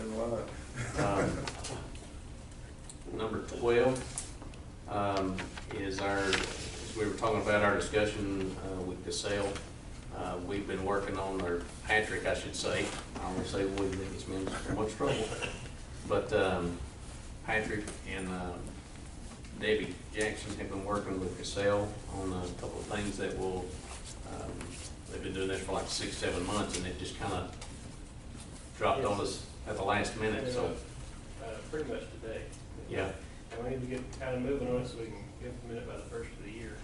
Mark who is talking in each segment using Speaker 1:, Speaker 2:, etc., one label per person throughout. Speaker 1: Um,
Speaker 2: Um,
Speaker 1: twelve, um, is our, as we were talking about our discussion, uh, with Casell, uh, we've been working on, or Patrick, I should say, I don't wanna say we, that gets me in so much trouble. But, um, Patrick and, uh, Debbie Jackson have been working with Casell on a couple of things that will, um, they've been doing this for like six, seven months, and it just kinda dropped on us at the last minute, so,
Speaker 3: Uh, pretty much today.
Speaker 1: yeah.
Speaker 3: And we need to get kind of moving on it so we can implement it by the first of the year.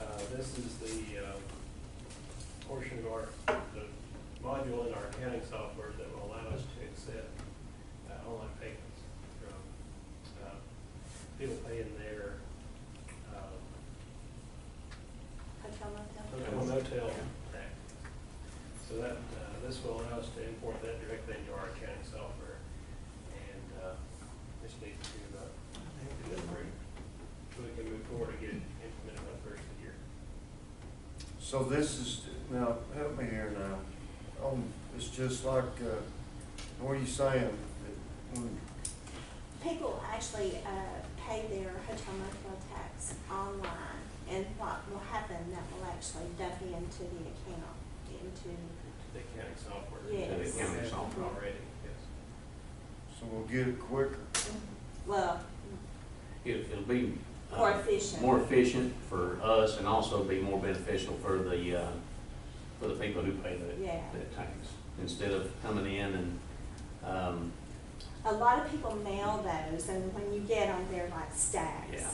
Speaker 3: Uh, this is the, uh, portion of our, the module in our accounting software that will allow us to accept, uh, online payments from, uh, people paying their, uh,
Speaker 4: Hotel motel.
Speaker 3: hotel motel tax. So that, uh, this will allow us to import that directly into our accounting software. And uh, just need to uh, get it approved so we can move forward and get it implemented by the first of the year.
Speaker 2: So this is, now, help me here now. Um, it's just like, uh, what are you saying? That hmm, when-
Speaker 4: People actually uh, pay their hotel motel tax online, and what will happen, that will actually dump into the account, into,
Speaker 3: The accounting software.
Speaker 4: Yes.
Speaker 3: that we
Speaker 1: The accounting
Speaker 3: have
Speaker 1: software.
Speaker 3: Already, yes.
Speaker 2: So we'll get it quicker.
Speaker 4: well,
Speaker 1: It- It'll be. uh,
Speaker 4: More efficient.
Speaker 1: More efficient for us and also be more beneficial for the, uh, for the people who pay that,
Speaker 4: Yeah.
Speaker 1: that tax. Instead of coming in and, um,
Speaker 4: a lot of people mail those, and when you get them, they're like stacks.
Speaker 1: Yeah.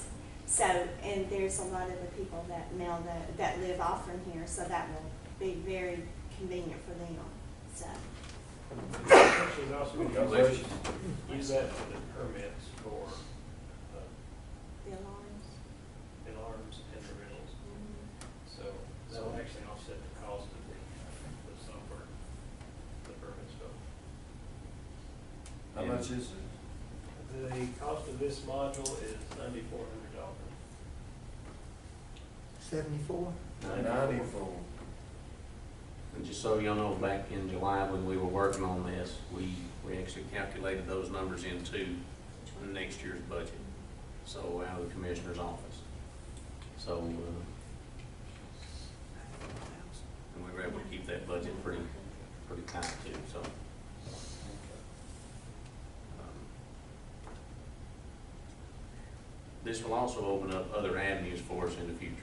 Speaker 4: So, and there's a lot of the people that mail the, that live off from here, so that will be very convenient for them, so.
Speaker 3: She's also going to
Speaker 1: Congratulations.
Speaker 3: use that for the permits for uh,
Speaker 4: The alarms.
Speaker 3: alarms and the rentals.
Speaker 4: mhm.
Speaker 3: So that will actually offset the cost of the, uh, the software, the permits, so.
Speaker 2: How
Speaker 1: Yeah.
Speaker 2: much is it?
Speaker 3: The cost of this module is ninety-four hundred dollars.
Speaker 5: Seventy-four?
Speaker 2: Ninety-four.
Speaker 1: And just so y'all know, back in July when we were working on this, we, we actually calculated those numbers into next year's budget. So out of the commissioner's office. So, uh, and we were able to keep that budget pretty, pretty tight too, so. um, This will also open up other avenues for us in the future.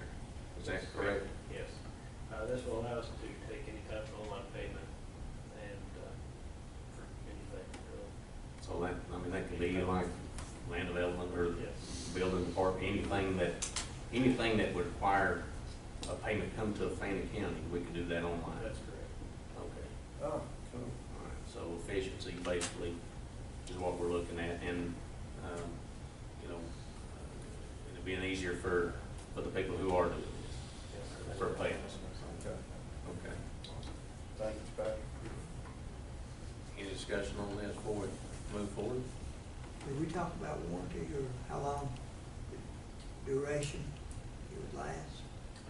Speaker 1: Is that correct?
Speaker 3: Yes. Uh, this will allow us to take any type of online payment and, uh, for anything, really.
Speaker 1: So that, I mean, that could be like land development or
Speaker 3: Yes.
Speaker 1: building department, anything that, anything that would require a payment come to Fannin County, we could do that online.
Speaker 3: That's correct.
Speaker 1: Okay.
Speaker 2: Oh, cool.
Speaker 1: All right, so efficiency basically is what we're looking at and, um, you know, uh, it'd be easier for, for the people who are doing this,
Speaker 3: Yes.
Speaker 1: for payments.
Speaker 2: Okay.
Speaker 1: Okay.
Speaker 2: Thank you, Patrick.
Speaker 1: Any discussion on this before we move forward?
Speaker 5: Did we talk about warranty or how long the duration it would last?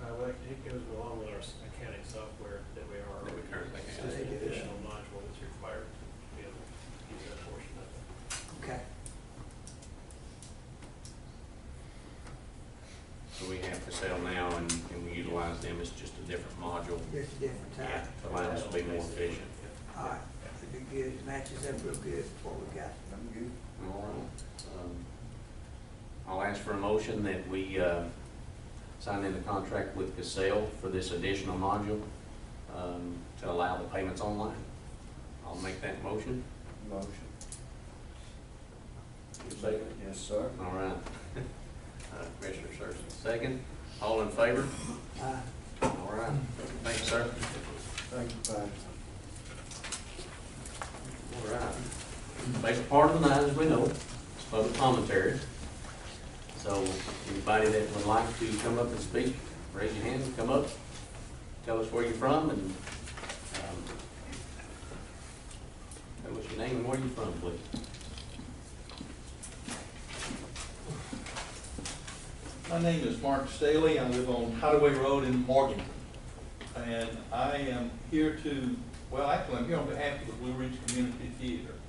Speaker 3: Uh, well, it goes along with our s- accounting software that we are.
Speaker 1: That we currently have.
Speaker 3: It's just an additional module that's required to be able to use that portion of it.
Speaker 5: Okay.
Speaker 1: So we have to sell now and, and we utilize them, it's just a different module.
Speaker 5: Just a different
Speaker 1: Yeah,
Speaker 5: time.
Speaker 1: allow us to be more efficient.
Speaker 3: Yeah.
Speaker 5: All right, that'd be good, It matches up real good with what we got.
Speaker 2: I'm good.
Speaker 1: All right. Um, I'll ask for a motion that we uh, sign in the contract with Casell for this additional module um, to allow the payments online. I'll make that motion.
Speaker 2: Motion. Yes, sir.
Speaker 1: All right. Uh, Commissioner Searson, second. All in favor?
Speaker 5: Uh,
Speaker 1: All right. Thanks, sir.
Speaker 2: Thank you, Patrick.
Speaker 1: All right. Basic part of the night, as we know, is public commentary. So anybody that would like to come up and speak, raise your hand, come up, tell us where you're from and, um, tell us your name and where you're from, please.
Speaker 6: My name is Mark Staley. I live on Hideaway Road in Morgan. And I am here to, well, actually, I'm here on behalf of the Blue Ridge Community Theater.